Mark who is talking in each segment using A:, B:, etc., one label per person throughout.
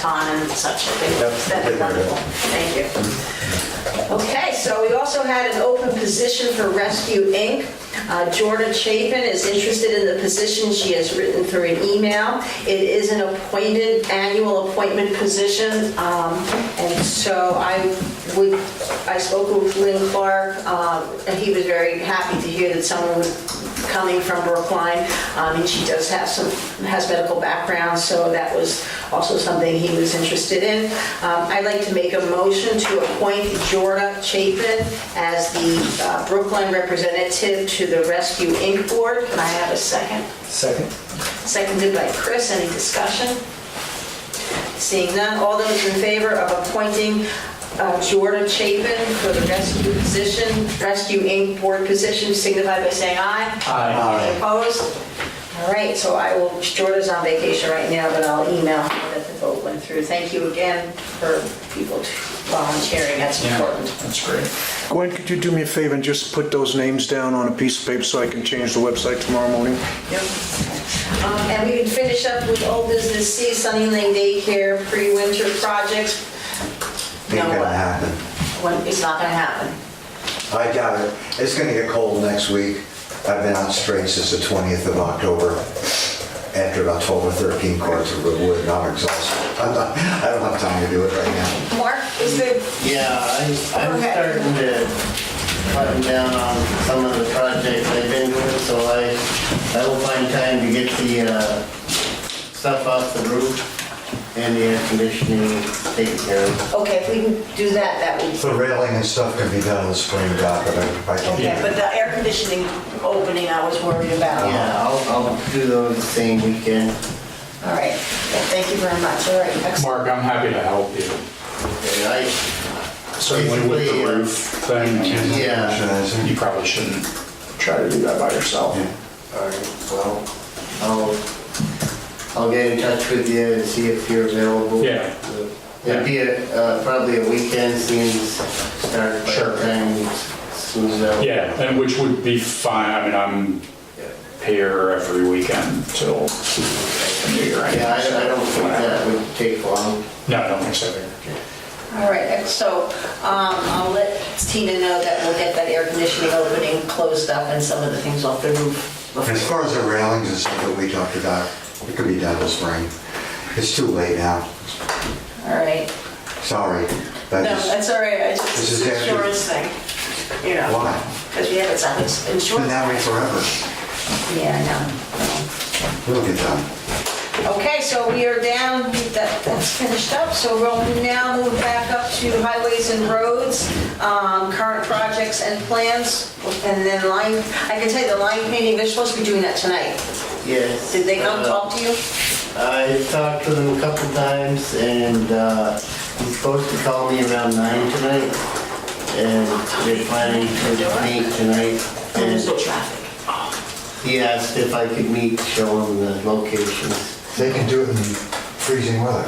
A: con and such, I think
B: Yep.
A: that's wonderful, thank you. Okay, so we also had an open position for Rescue Inc. Uh, Jordan Chapin is interested in the position, she has written through an email. It is an appointed, annual appointment position, um, and so I would, I spoke with Lynn Clark, um, and he was very happy to hear that someone would coming from Brookline, um, and she does have some, has medical background, so that was also something he was interested in. Um, I'd like to make a motion to appoint Jorda Chapin as the uh, Brookline representative to the Rescue Inc. Board. Can I have a second?
B: Second?
A: Seconded by Chris, any discussion? Seeing none, all those in favor of appointing uh, Jordan Chapin for the rescue position, Rescue Inc. Board position, signify by saying aye.
B: Aye.
A: Opposed? All right, so I will, Jordan's on vacation right now, but I'll email him that the vote went through. Thank you again for people volunteering, that's important.
C: That's great.
D: Gwen, could you do me a favor and just put those names down on a piece of paper so I can change the website tomorrow morning?
A: Yep. Um, And we can finish up with old business C, Sunny Lane Daycare, pre-winter projects. No,
E: Ain't gonna happen.
A: When, it's not gonna happen.
E: I doubt it. It's gonna get cold next week. I've been out straight since the 20th of October. After about 12 or 13 cords of wood, and I'm exhausted. I'm not, I don't have time to do it right now.
A: Mark, is there,
C: Yeah, I- I'm
A: Okay.
C: starting to cutting down on some of the projects I've been doing, so I, I will find time to get the uh, stuff off the roof and the air conditioning taken care of.
A: okay, if we can do that, that would,
E: The railing and stuff can be done in the spring, doc, but I I can't.
A: okay, but the air conditioning opening I was worried
F: Uh-huh.
A: about.
C: Yeah, I'll, I'll do those the same weekend.
A: All right, Yeah, thank you very much, all right, excellent.
F: Mark, I'm happy to help you.
C: And I,
F: Certainly with
C: Basically,
F: the
C: uh,
F: roof thing. and-
C: yeah,
F: You probably shouldn't try to do that by yourself.
C: all right, well, I'll, I'll get in touch with you and see if you're available.
F: Yeah.
C: It'd be a, uh, probably a weekend seems start by
F: Sure.
C: the time it's smooth out.
F: Yeah, and which would be fine, I mean, I'm here every weekend till the New Year.
C: Yeah, I, I don't think
F: Whatever.
C: that would take long.
F: No, I don't think so.
A: All right, ex- so um, I'll let Tina know that we'll get that air conditioning opening closed up and some of the things off the roof.
E: As far as the railings and stuff that we talked about, it could be done in the spring. It's too late now.
A: All right.
E: Sorry.
A: No,
E: That is,
A: that's all right, I just,
E: This
A: it's
E: is
A: an
E: after-
A: insurance thing, you know.
E: Why?
A: Because we have it on ins-
E: been
A: insurance.
E: that way forever.
A: Yeah,
E: It'll get done.
A: I know. Okay, so we are down, that, that's finished up, so we'll now move back up to highways and roads, um, current projects and plans, and then line, I can tell you the line painting, they're supposed to be doing that tonight.
C: Yes.
A: Did they come
C: uh,
A: talk to you?
C: I talked to them a couple times and, uh, he's supposed to call me around nine tonight. And they're planning to meet tonight. And
A: traffic.
C: he asked if I could meet, show him the locations.
E: They can do it in freezing weather.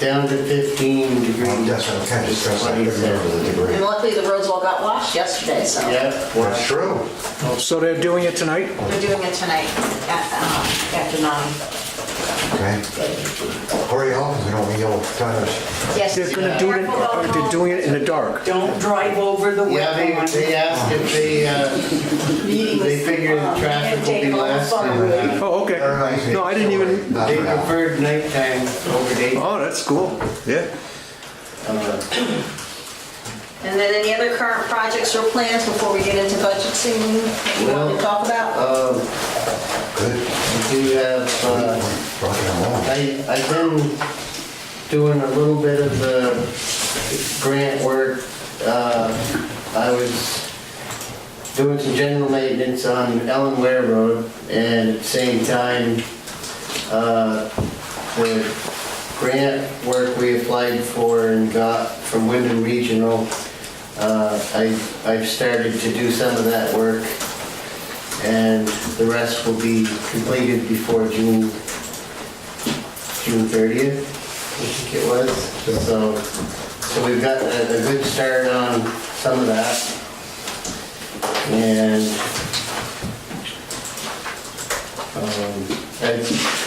C: Down to fifteen degrees.
E: Well, That's what I'm kind of stressed, I
C: What he
E: couldn't
C: said.
E: remember the degree.
A: And luckily, the roads all got washed yesterday, so
C: Yep.
E: That's true.
D: So they're doing it tonight?
A: we're doing it tonight at, uh, after nine.
E: Okay. Hurry home, we don't need old timers.
A: Yes.
D: They're gonna do it, in- uh, they're doing it in the dark.
G: Don't drive over the wet
C: Yeah, they,
G: one.
C: they asked if they, uh, they figured the traffic will be less and uh,
D: Oh, okay.
E: That reminds me.
D: No, I didn't even,
E: Not
C: they
E: for now.
C: preferred nighttime over day.
D: oh, that's cool. Yeah.
A: And then any other current projects or plans before we get into budget season you want to talk about?
C: Um,
E: Good.
C: I do have, uh,
E: Rocking and rolling.
C: I, I've been doing a little bit of the grant work. Uh, I was doing some general maintenance on Ellen Ware Road, and at the same time, uh, the grant work we applied for and got from Wyndham Regional, uh, I, I've started to do some of that work, and the rest will be completed before June June 30th, I think it was. So, so we've got a, a good start on some of that. And, um, I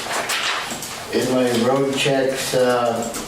C: in my road checks, uh,